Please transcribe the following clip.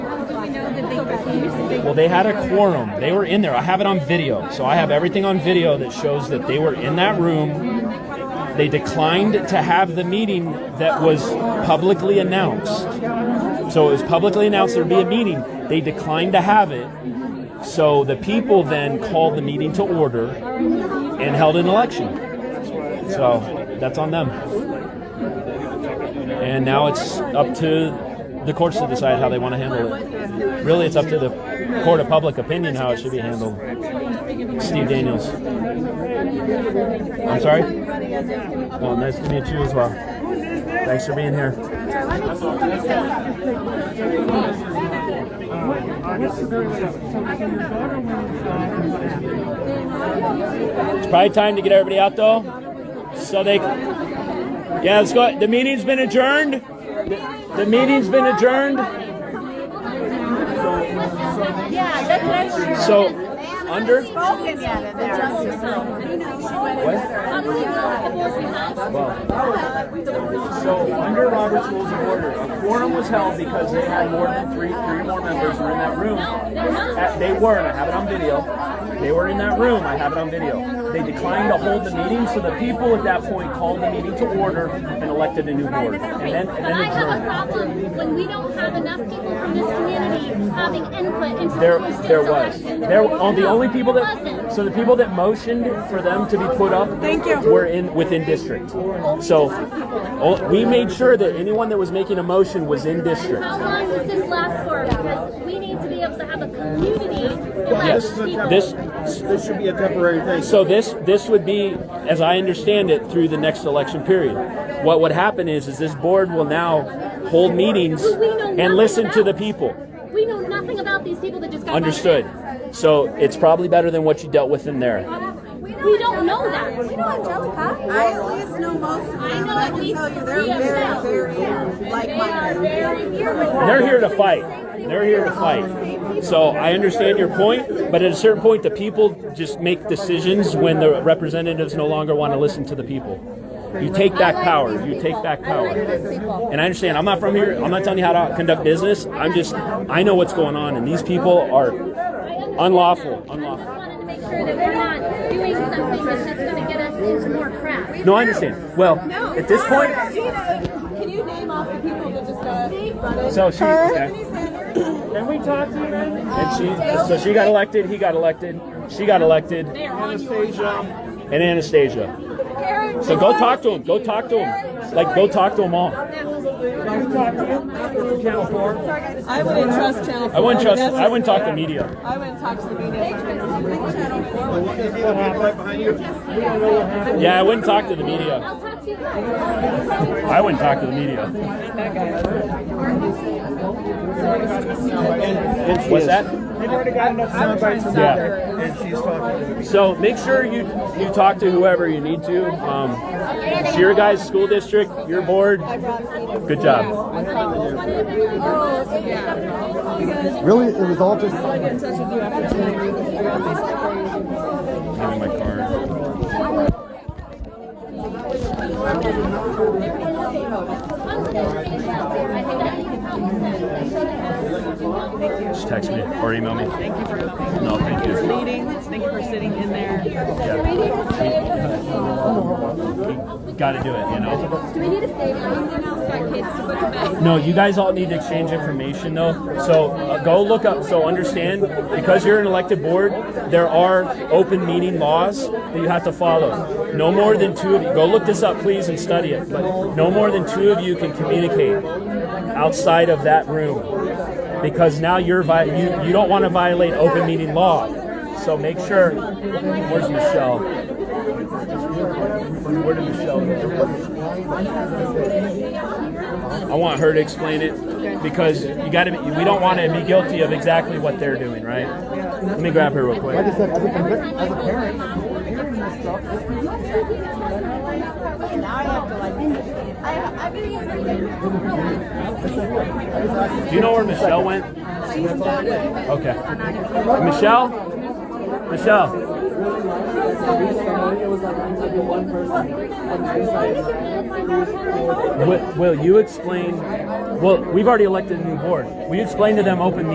Well, they had a quorum. They were in there. I have it on video. So I have everything on video that shows that they were in that room. They declined to have the meeting that was publicly announced. So it was publicly announced there'd be a meeting. They declined to have it. So the people then called the meeting to order and held an election. So that's on them. And now it's up to the courts to decide how they want to handle it. Really, it's up to the court of public opinion how it should be handled. Steve Daniels. I'm sorry? Well, nice to meet you as well. Thanks for being here. It's probably time to get everybody out though. So they. Yeah, let's go. The meeting's been adjourned. The, the meeting's been adjourned. Yeah, that's what I was So, under. spoken yet in What? So, under Robert's Rules of Order, a quorum was held because they had more than three, three more members were in that room. Uh, They were, and I have it on video. They were in that room. I have it on video. They declined to hold the meeting, so the people at that point called the meeting to order and elected a new board. And then, But and then I have a adjourned. problem when we don't have enough people from this community having input into There, who was just there was. elected. There, oh, the only people No, it that, so wasn't. the people that motioned for them to be put up Thank you. were in, within district. So, oh, we made sure that anyone that was making a motion was in district. How long does this last for? Because we need to be able to have a community Yes, elect people. this, This should be a temporary thing. so this, this would be, as I understand it, through the next election period. What would happen is, is this board will now hold meetings Who we know nothing and listen to the about. people. We know nothing about these people that just got Understood. voted So it's probably better than what you dealt with in there. in. We don't know that. We know Angelica. I at least know most of them. I and know I at can least tell you three of them. they're very, very like-minded. They're here to fight. They're here to fight. So I understand your point, but at a certain point, the people just make decisions when the representatives no longer want to listen to the people. You take back power. You take back power. And I understand. I'm not from here. I'm not telling you how to conduct business. I'm just. I know what's going on, and these people are unlawful. Unlawful. I wanted to make sure that we're not doing something that's going to get us into more crap. No, I understand. Well, at this point, Can you name off the people that just got? so she. Tiffany Sanders. Then we talked to you, And she, so she got elected. He got elected. She got elected. Anastasia, and Anastasia. So go talk to him. Go talk to him. Like go talk to them all. Channel 4. I wouldn't trust Channel Four. I wouldn't trust. That's- I wouldn't talk to media. I wouldn't talk to the media. Well, What's the deal? People right behind you? Yeah, I wouldn't talk to the media. I'll talk to you later. I wouldn't talk to the media. And she What's is. that? They've already got enough sound bites from Yeah. her, And she's talking. So make sure you you talk to whoever you need to. Um, it's your guys' school district, your board. Good job. Really, it was all just Give me my card. Just text me or email me. Thank you for no, thank you. meeting. Thank you for sitting in there. Got to do it, you know. No, you guys all need to exchange information though. So uh, go look up. So understand, because you're an elected board, there are open meeting laws that you have to follow. No more than two of you. Go look this up, please, and study it. But no more than two of you can communicate outside of that room, because now you're vi- you you don't want to violate open meeting law. So make sure. Where's Michelle? Where did Michelle go? I want her to explain it because you got to. We don't want to be guilty of exactly what they're doing, right? Let me grab her real like quick. I said, as a, convi- as a parent, hearing this stuff. Now I have to like. I, I've been Do you know where Michelle went? Okay. Michelle. Michelle. Will, will you explain? Well, we've already elected a new board. Will you explain to them open